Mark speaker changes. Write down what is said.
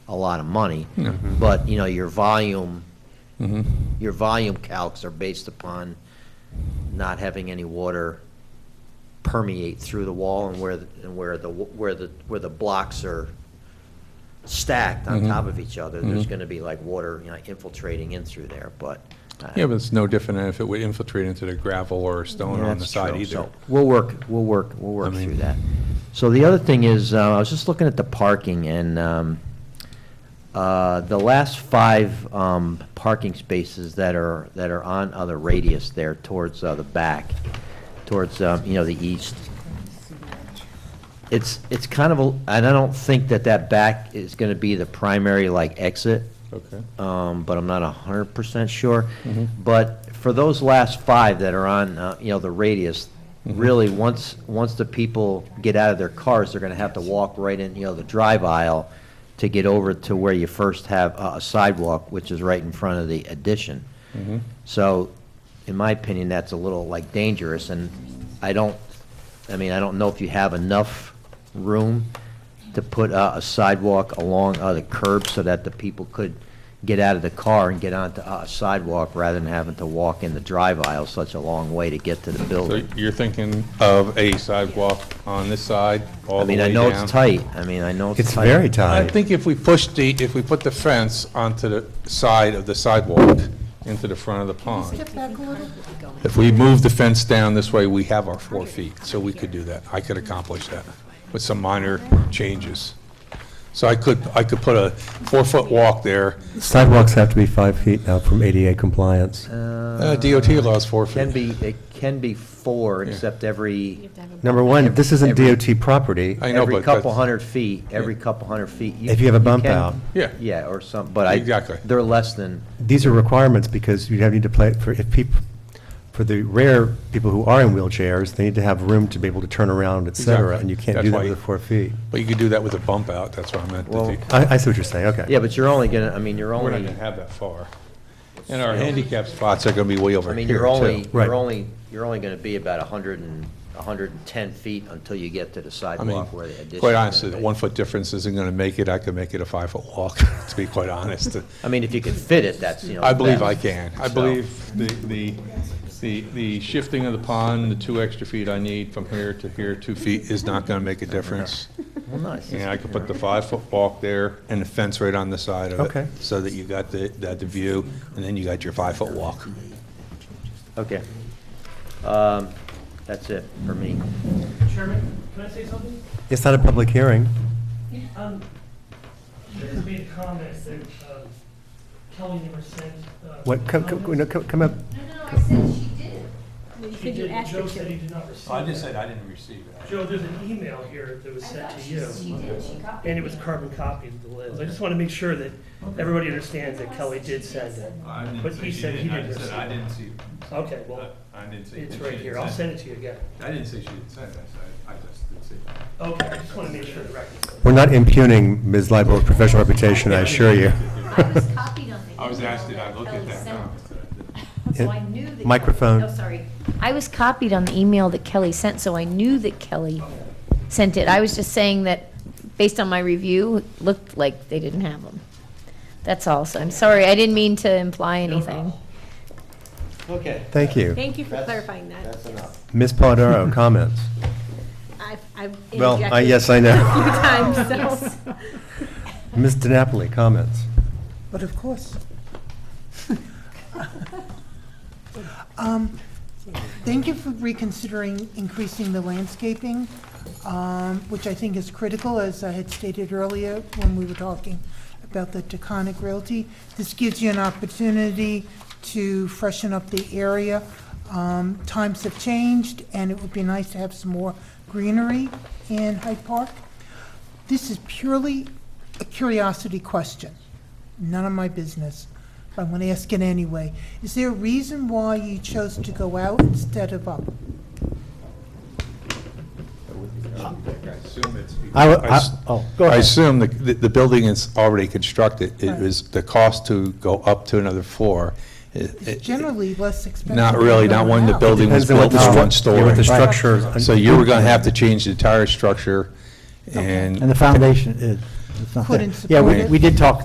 Speaker 1: a lot of money.
Speaker 2: Mm-hmm.
Speaker 1: But, you know, your volume, your volume calcs are based upon not having any water permeate through the wall and where, the- and where the, where the, where the blocks are stacked
Speaker 2: Mm-hmm.
Speaker 1: on top of each other, there's gonna be like water, you know, infiltrating in through there, but. uh,
Speaker 2: Yeah, but it's no different than if it would infiltrate into the gravel or stone
Speaker 1: yeah,
Speaker 2: on the
Speaker 1: that's
Speaker 2: side
Speaker 1: true.
Speaker 2: either.
Speaker 1: So We'll work, we'll work, we'll work
Speaker 2: I mean-
Speaker 1: through that. So the other thing is, uh, I was just looking at the parking and, um, uh, the last five, um, parking spaces that are, that are on other radius there towards, uh, the back, towards, um, you know, the east. It's, it's kind of a, and I don't think that that back is gonna be the primary like exit
Speaker 2: Okay.
Speaker 1: um, but I'm not hundred percent sure. But for those last five that are on, uh, you know, the radius, really, once, once the people get out of their cars, they're gonna have to walk right in, you know, the drive aisle to get over to where you first have a a sidewalk, which is right in front of the addition. So, in my opinion, that's a little like dangerous, and I don't, I mean, I don't know if you have enough room to put uh, a sidewalk along uh, the curb so that the people could get out of the car and get onto uh, a sidewalk rather than having to walk in the drive aisle such a long way to get to the
Speaker 2: So
Speaker 1: building.
Speaker 2: you're thinking of a sidewalk on this side, all
Speaker 1: I
Speaker 2: the way
Speaker 1: mean, I
Speaker 2: down?
Speaker 1: know it's tight, I mean, I know it's
Speaker 3: It's
Speaker 1: tight.
Speaker 3: very
Speaker 2: I
Speaker 3: tight.
Speaker 2: think if we push the, if we put the fence onto the side of the sidewalk, into the front of the pond,
Speaker 4: Step back a little.
Speaker 2: if we move the fence down this way, we have our four feet, so we could do that. I could accomplish that with some minor changes. So I could, I could put a four-foot walk there.
Speaker 3: Sidewalks have to be five feet now from ADA compliance.
Speaker 2: Uh, DOT allows four feet.
Speaker 1: Can be, it can be four, except every,
Speaker 3: Number one, this isn't
Speaker 1: Every-
Speaker 3: DOT property.
Speaker 2: I know,
Speaker 1: every
Speaker 2: but that's-
Speaker 1: couple hundred feet, every couple hundred feet.
Speaker 3: If you have a bump
Speaker 1: can-
Speaker 3: out.
Speaker 2: Yeah.
Speaker 1: Yeah, or some, but I.
Speaker 2: Exactly.
Speaker 1: They're less than,
Speaker 3: These are requirements because you have, need to play, for if people, for the rare people who are in wheelchairs, they need to have room to be able to turn around, et cetera,
Speaker 2: Exactly.
Speaker 3: and you can't
Speaker 2: That's
Speaker 3: do that
Speaker 2: why
Speaker 3: with
Speaker 2: you-
Speaker 3: the four feet.
Speaker 2: But you could do that with a bump out, that's what I meant.
Speaker 1: Well,
Speaker 2: that you-
Speaker 3: I, I see what you're saying, okay.
Speaker 1: yeah, but you're only gonna, I mean, you're
Speaker 2: We're
Speaker 1: only.
Speaker 2: not gonna have that far. And our handicap spots are gonna be way over
Speaker 1: I
Speaker 2: here,
Speaker 1: mean,
Speaker 2: too.
Speaker 1: you're only,
Speaker 3: Right.
Speaker 1: you're only, you're only gonna be about a hundred and, a hundred and ten feet until you get to the
Speaker 2: I mean,
Speaker 1: sidewalk where the addition.
Speaker 2: quite honestly, that one-foot difference isn't gonna make it. I could make it a five-foot walk, to be quite honest.
Speaker 1: I mean, if you can fit it, that's, you know.
Speaker 2: I believe I
Speaker 1: best.
Speaker 2: can. I
Speaker 1: So-
Speaker 2: believe the, the, the, the shifting of the pond, the two extra feet I need from here to here, two feet, is not gonna make a difference.
Speaker 1: Well, nice.
Speaker 2: And I could put the five-foot walk there and the fence right on the side of it.
Speaker 3: Okay.
Speaker 2: So that you got the, that the view, and then you got your five-foot walk.
Speaker 1: Okay. Um, that's it for me.
Speaker 5: Chairman, can I say something?
Speaker 3: It's not a public hearing.
Speaker 5: Um, you guys made a comment that um, Kelly never sent. uh,
Speaker 3: What, come, come, no,
Speaker 5: comments.
Speaker 3: come come up,
Speaker 6: No, no, I said she did.
Speaker 4: You
Speaker 5: She
Speaker 4: said you
Speaker 5: did,
Speaker 4: asked her
Speaker 5: Joe said
Speaker 4: to.
Speaker 5: he did not receive that.
Speaker 2: I didn't receive it.
Speaker 5: Joe, there's an email here that was
Speaker 6: I
Speaker 5: sent
Speaker 6: thought
Speaker 5: to
Speaker 6: she, she
Speaker 5: you,
Speaker 6: did, she copied.
Speaker 5: and it was carbon copied of the list. I just want to make sure that everybody understands that Kelly did send it. But he said he didn't receive it.
Speaker 2: see it.
Speaker 5: Okay, well,
Speaker 2: I didn't see.
Speaker 5: it's right here. I'll send it to you again.
Speaker 2: I didn't say she didn't send it, I just didn't see.
Speaker 5: Okay, I just want to make sure the record.
Speaker 3: we're not impugning Ms. Leibo's professional reputation, I assure you.
Speaker 6: I was copied on the email.
Speaker 2: I was asked, did I
Speaker 6: that
Speaker 2: look
Speaker 6: Kelly
Speaker 2: at that
Speaker 6: sent.
Speaker 2: comment?
Speaker 6: So I knew that.
Speaker 3: Microphone.
Speaker 6: Oh, sorry. I was copied on the email that Kelly sent, so I knew that Kelly sent it. I was just saying that, based on my review, it looked like they didn't have them. That's all, so I'm sorry, I didn't mean to imply anything.
Speaker 1: Okay.
Speaker 3: Thank you.
Speaker 4: Thank you for
Speaker 1: That's-
Speaker 4: clarifying that.
Speaker 1: That's enough.
Speaker 3: Ms. Polidoro, comments?
Speaker 4: I've, I've interjected.
Speaker 3: Well, I, yes, I know.
Speaker 4: A few times, so.
Speaker 3: Ms. DiNapoli, comments?
Speaker 7: But of course. Um, Thank you for reconsidering increasing the landscaping, um, which I think is critical, as I had stated earlier when we were talking about the Taconic Realty. This gives you an opportunity to freshen up the area. Um, Times have changed, and it would be nice to have some more greenery in Hyde Park. This is purely a curiosity question none of my business, but I'm going to ask it anyway. Is there a reason why you chose to go out instead of up?
Speaker 3: I, w-
Speaker 2: I
Speaker 3: I-
Speaker 2: s-
Speaker 3: oh, go
Speaker 2: I
Speaker 3: ahead.
Speaker 2: assume the, the the building is already constructed. It
Speaker 7: Right.
Speaker 2: was, the cost to go up to another floor. it- it-
Speaker 7: It's generally less expensive.
Speaker 2: Not really, not when the
Speaker 7: than
Speaker 2: building was
Speaker 3: Depends on what
Speaker 2: built
Speaker 3: the
Speaker 2: as
Speaker 3: stru-
Speaker 2: one
Speaker 3: yeah,
Speaker 2: story.
Speaker 3: what the structure.
Speaker 2: So you were gonna have to change the entire structure
Speaker 7: Okay.
Speaker 2: and.
Speaker 8: And the foundation is,
Speaker 9: it's not that-
Speaker 10: couldn't
Speaker 8: Yeah,
Speaker 10: support it.
Speaker 8: we, we did talk